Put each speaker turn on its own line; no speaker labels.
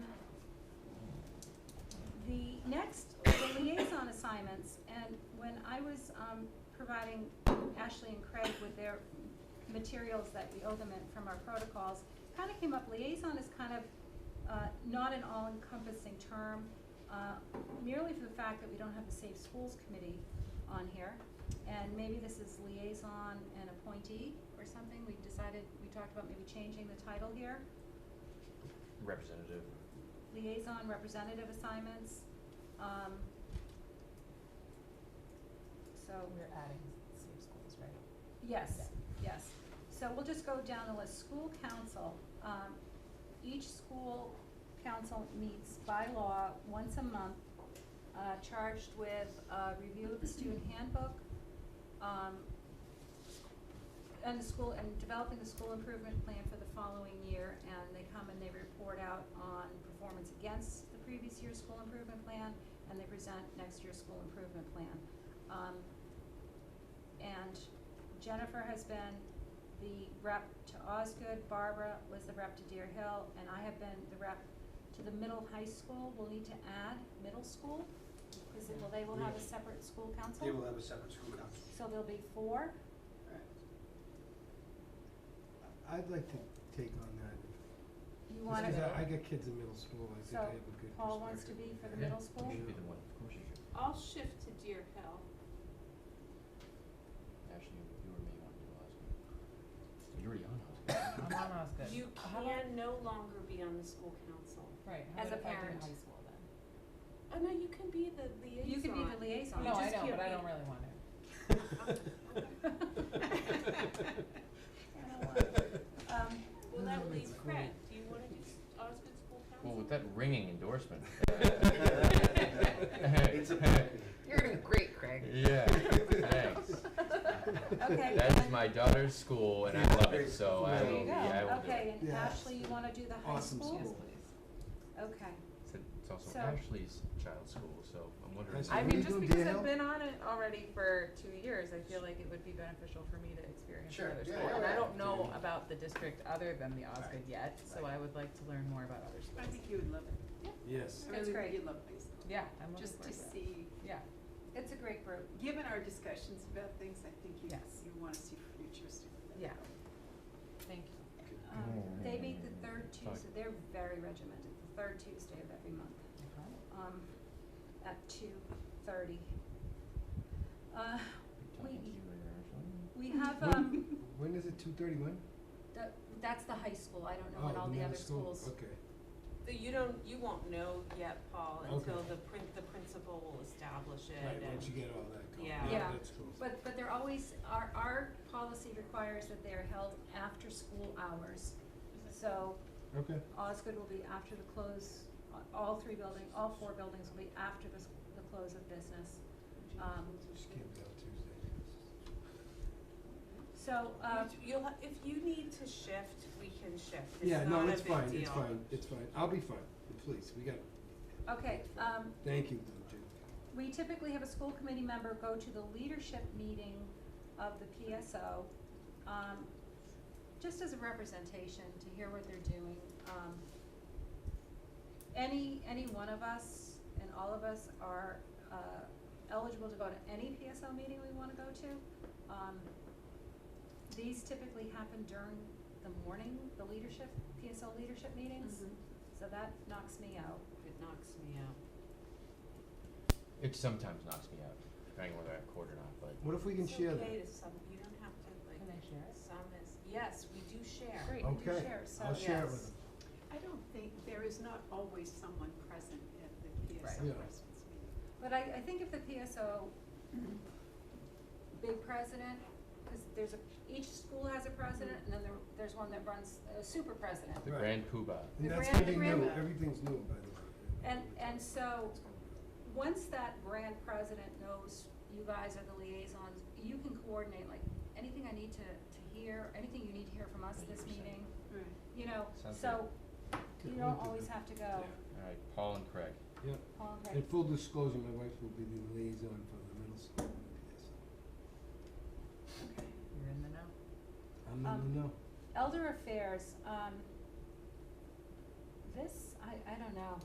assignments, and when I was um, providing Ashley and Craig with their materials that we owe them in from our protocols, kind of came up, liaison is kind of uh, not an all-encompassing term, uh, merely for the fact that we don't have the Safe Schools Committee on here, and maybe this is liaison and appointee or something, we decided, we talked about maybe changing the title here,
Representative.
liaison representative assignments, um, so.
We're adding safe schools, right?
Yes, yes. So we'll just go down the list. School council, um, each school council meets by law once a month, uh, charged with, uh, review of the student handbook, um, and the school, and developing the school improvement plan for the following year, and they come and they report out on performance against the previous year's school improvement plan, and they present next year's school improvement plan. Um, and Jennifer has been the rep to Osgood, Barbara was the rep to Deer Hill, and I have been the rep to the middle high school. We'll need to add middle school, because it, will they will have a
Yes.
separate school council.
They will have a separate school council.
So there'll be four.
I'd like to take on that.
You wanna,
Just 'cause I, I got kids in middle school, I think I
So,
have a good perspective.
Paul wants to be for the
Yeah,
middle school?
You should be the one, of course you should.
I'll shift to Deer Hill.
Actually, you you or me want to do Osgood. You're already on
Uh,
Osgood.
I'm on Osgood.
You
How about-
can no longer be on the school council.
Right, how
as
about if
a
I do
parent.
high school then?
Oh, no, you can be the liaison.
you could be the liaison.
You
No, I
just
know,
can't
but I
be-
don't really want to.
Um,
Well, that
Mm,
leaves
that's
Craig.
great.
Do you wanna do s- Osgood School
Well, with
Council?
that ringing endorsement.
It's a pact.
You're doing great, Craig.
Yeah, thanks.
okay.
That is
and-
my daughter's school and I love it, so I
There
will,
you
yeah, I will do it.
Okay, and
Yeah.
Ashley, you wanna do the high
Awesome
school?
Yes,
Cool.
please.
Okay,
It's it's also
So-
Ashley's child's school, so I'm wondering.
Ashley.
I
Can
mean,
we
just
go
because
Dale?
I've been on it already for two years, I feel like it would be beneficial for me to experience
Sure,
another
yeah,
school.
yeah,
And I
yeah.
don't know
Yeah.
about the district other than the Osgood
Right.
yet, so
Right.
I would like to learn more about other
I
schools.
think you would love it.
Yes.
I
That's
really
great.
think you'd love high school.
Yeah, I'm looking
Just
forward
to
to that.
see,
Yeah,
it's a great group.
given our discussions about things, I think you,
Yes.
you wanna see future students.
Yeah. thank you.
Um, they meet the third
Sorry.
Tuesday, they're very regimented, the third Tuesday of every month, um, at two thirty. Uh,
Talking
we-
to you later, Ashley.
we have, um,
When is it, two thirty-one?
the, that's the high school, I don't know
Oh,
what all the other schools.
Okay,
The- You don't, you won't know yet, Paul, until
Okay.
the prin- the principal will establish it
right,
and-
once you get all that going,
Yeah.
yeah,
Yeah.
that's cool.
But, but they're always, our, our policy requires that they're held after school hours. So
Okay,
Osgood will be after the close, all three buildings, all four buildings will be after the, s- the close of business. Um,
just can't be on Tuesday.
So, uh,
You- You'll, ha- if you need to shift, we can shift. It's
Yeah, no,
not a
it's
big
fine, it's
deal.
fine, it's fine, I'll be fine, please, we got,
okay, um,
thank you, Lou, Jim.
we typically have a school committee member go to the leadership meeting of the PSO, um, just as a representation to hear what they're doing. Um, any, any one of us and all of us are, uh, eligible to go to any PSO meeting we wanna go to. Um, these typically happen during the morning, the leadership, PSO leadership meetings,
Mhm.
Mm-hmm.
so that knocks me out.
It knocks me out.
It sometimes knocks me out, depending whether I have court or not, but
What if we can
It's
share
okay
that?
to some, you don't have to
Can
like,
I share it?
some is, yes, we do share.
Great, we do
Okay,
share, so.
I'll share it
yes.
with them.
I don't think, there is not always someone present at the
Right.
PSO
Yeah.
president's meeting.
But I, I think if the PSO, big president, because there's a, each school has a president, and then there, there's one that runs, a super president.
the
Right.
grand poobah.
The
And that's
grand-
getting
the grand-
new, everything's new, by the way.
And, and so,
It's gonna be-
once that grand president knows you guys are the liaisons, you can coordinate, like, anything I need to, to hear, anything you need to hear from us this
100%.
meeting,
Right.
you know,
Sounds
so, you
Good
don't
point,
always
yeah.
have to go, Oh,
All right, Paul and Craig.
Yeah,
Paul and Craig.
and full disclosure, my wife will be the liaison for the middle school and PSO.
You're in the know.
I'm not
Um,
gonna know.
Elder Affairs, um, this, I, I don't know,